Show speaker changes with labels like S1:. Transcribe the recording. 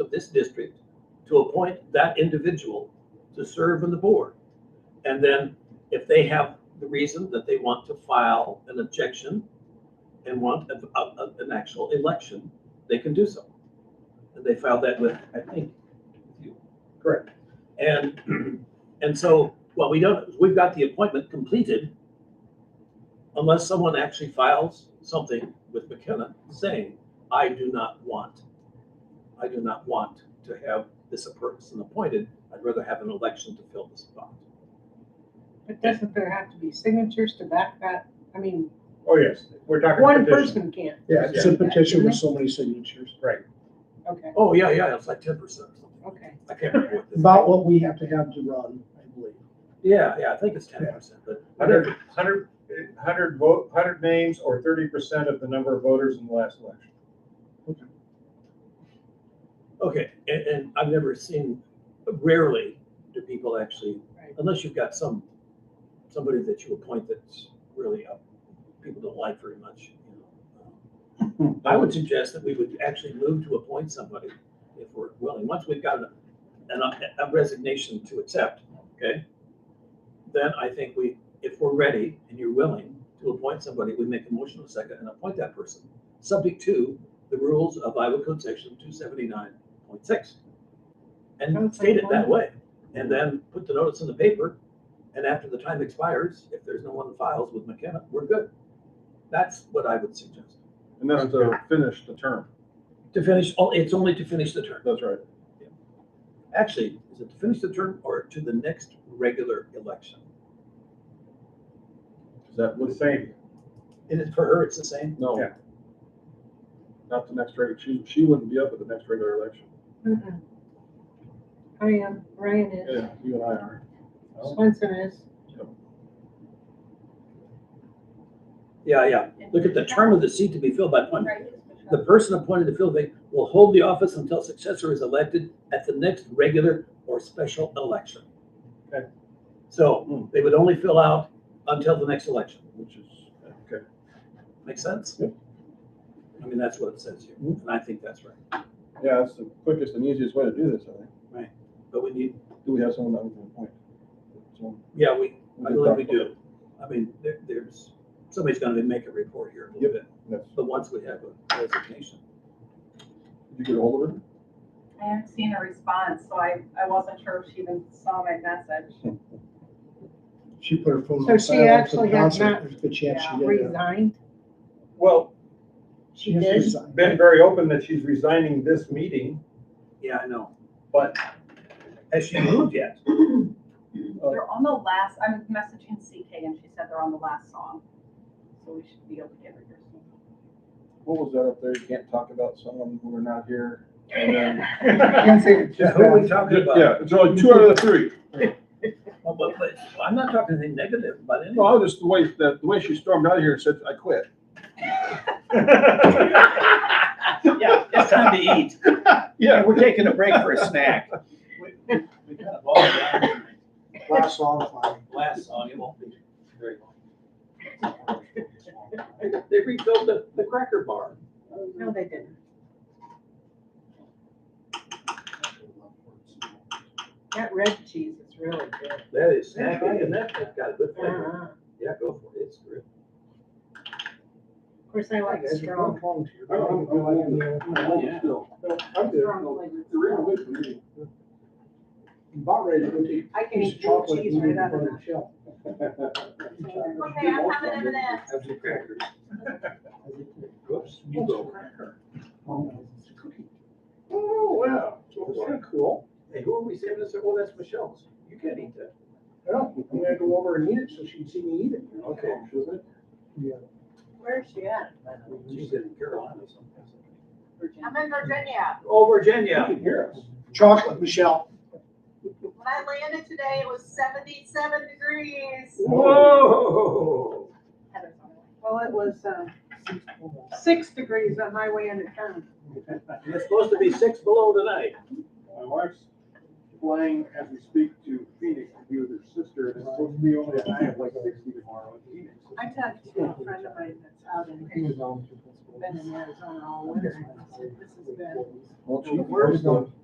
S1: of this district to appoint that individual to serve on the board. And then if they have the reason that they want to file an objection and want a- a- a- an actual election, they can do so. And they filed that with, I think, with you.
S2: Correct.
S1: And, and so, well, we don't, we've got the appointment completed unless someone actually files something with McKenna saying, I do not want, I do not want to have this person appointed. I'd rather have an election to fill the spot.
S3: But doesn't there have to be signatures to back that? I mean,
S2: Oh, yes, we're talking
S3: one
S2: petition.
S3: person can't.
S4: Yeah, it's a
S3: do that,
S4: petition with
S3: isn't
S4: so many signatures.
S3: it? Okay,
S1: Oh, yeah, yeah, it's like ten percent.
S3: okay.
S1: I can't remember what this.
S4: About what we have to have to run, I believe.
S1: Yeah, yeah, I think it's ten percent, but
S2: Hundred, hundred, hundred vote, hundred names or thirty percent of the number of voters in the last election.
S1: Okay, and, and I've never seen, rarely do people actually,
S3: Right.
S1: unless you've got some, somebody that you appoint that's really up, people don't like very much. um, you know. I would suggest that we would actually move to appoint somebody if we're willing. Once we've got a- an, a resignation to accept, okay? Then I think we, if we're ready and you're willing to appoint somebody, we make a motion in a second and appoint that person, subject to the rules of Iowa Code Section two seventy-nine point six. And
S3: Sounds
S1: state it
S3: like
S1: that way, and then put the notice in the paper, and after the time expires, if there's no one files with McKenna, we're good. That's what I would suggest.
S5: And that's to finish the term,
S1: To finish, oh, it's only to finish the term.
S5: that's right.
S1: Actually, is it to finish the term or to the next regular election?
S5: Is that
S2: The
S5: what,
S2: same,
S1: And it's for her, it's the same?
S5: no,
S2: Yeah.
S5: not the next regular, she, she wouldn't be up at the next regular election.
S3: Mm-mm. I am, Ryan is,
S5: Yeah, you and I are.
S3: Swenson is.
S1: Yeah, yeah. Look at the term of the seat to be filled by appointment. The person appointed to fill the vacancy will hold the office until successor is elected at the next regular or special election.
S2: Okay.
S1: So they would only fill out until the next election.
S5: Which is, okay.
S1: Make sense?
S5: Yep.
S1: I mean, that's what it says here, and I think that's right.
S5: Yeah, that's the quickest and easiest way to do this, I think.
S1: But we need,
S5: Do we have someone that we can appoint? So,
S1: yeah, we,
S5: we
S1: I
S5: can
S1: believe
S5: talk
S1: we
S5: about it.
S1: do. I mean, there, there's, somebody's gonna make a report here in a little
S5: Yep.
S1: bit,
S5: Yes.
S1: but once we have a resignation.
S5: Did you get ahold of her?
S6: I haven't seen a response, so I, I wasn't sure if she even saw my message.
S4: She put her phone
S3: So
S4: on
S3: she
S4: silent for
S3: actually
S4: the
S3: has
S4: concert.
S3: not
S4: There's a good chance she did. that.
S3: Resigned.
S2: well,
S4: She
S3: did?
S4: has resigned.
S2: been very open that she's resigning this meeting,
S1: Yeah, I know.
S2: but
S1: Has she moved yet? Oh.
S6: They're on the last, I'm messaging CK and she said they're on the last song. So we should be able to get her here soon.
S5: What was that up there? You can't talk about someone when we're not here. And then,
S2: Lindsay,
S1: Yeah, who are we talking about?
S5: yeah, it's only two out of the three.
S1: Well, but, but, I'm not talking anything negative about
S5: No,
S1: anyone.
S5: I was just, the way, the, the way she stormed out of here and said, I quit.
S1: Yeah, it's time to eat.
S5: Yeah.
S1: we're taking a break for a snack. We we kind of all down to
S4: Last song playing.
S1: the last song, it won't be very long. They refilled the, the cracker bar.
S3: No, they didn't. That red cheese is really good.
S1: That is snacky, and that, that's got a good flavor.
S3: Uh-huh.
S1: Yeah, go for it, it's good.
S3: Of course, I like strong,
S1: Oh, Yeah.
S4: I'm
S3: strong flavors.
S4: About ready to go to eat
S3: I can
S4: piece
S3: eat
S4: of
S3: blue
S4: chocolate.
S3: cheese right out of that.
S6: Okay, I'm having M&Ms.
S1: Have some crackers. Oops, you go. Oh, wow. That's cool. Hey, who are we saving this? Oh, that's Michelle's. You can't eat that.
S4: Well, I'm gonna go over and eat it so she'd see me eat it.
S1: Okay.
S4: Yeah.
S3: Where's she at?
S1: She's in Carolina someplace.
S3: Virginia?
S6: I'm in Virginia.
S1: Oh, Virginia.
S5: can hear us.
S4: Chocolate, Michelle.
S6: When I landed today, it was seventy-seven degrees.
S1: Whoa.
S3: Well, it was, um, six degrees on my way into town.
S1: It's supposed to be six below tonight.
S5: My wife's flying as we speak to Phoenix to be with her sister, and it's supposed to be only a high of like sixty tomorrow in Phoenix.
S3: I talked to a friend of mine that's out in, been in Arizona all winter. and I said, This is bad.
S5: Well,
S3: The worst
S5: though.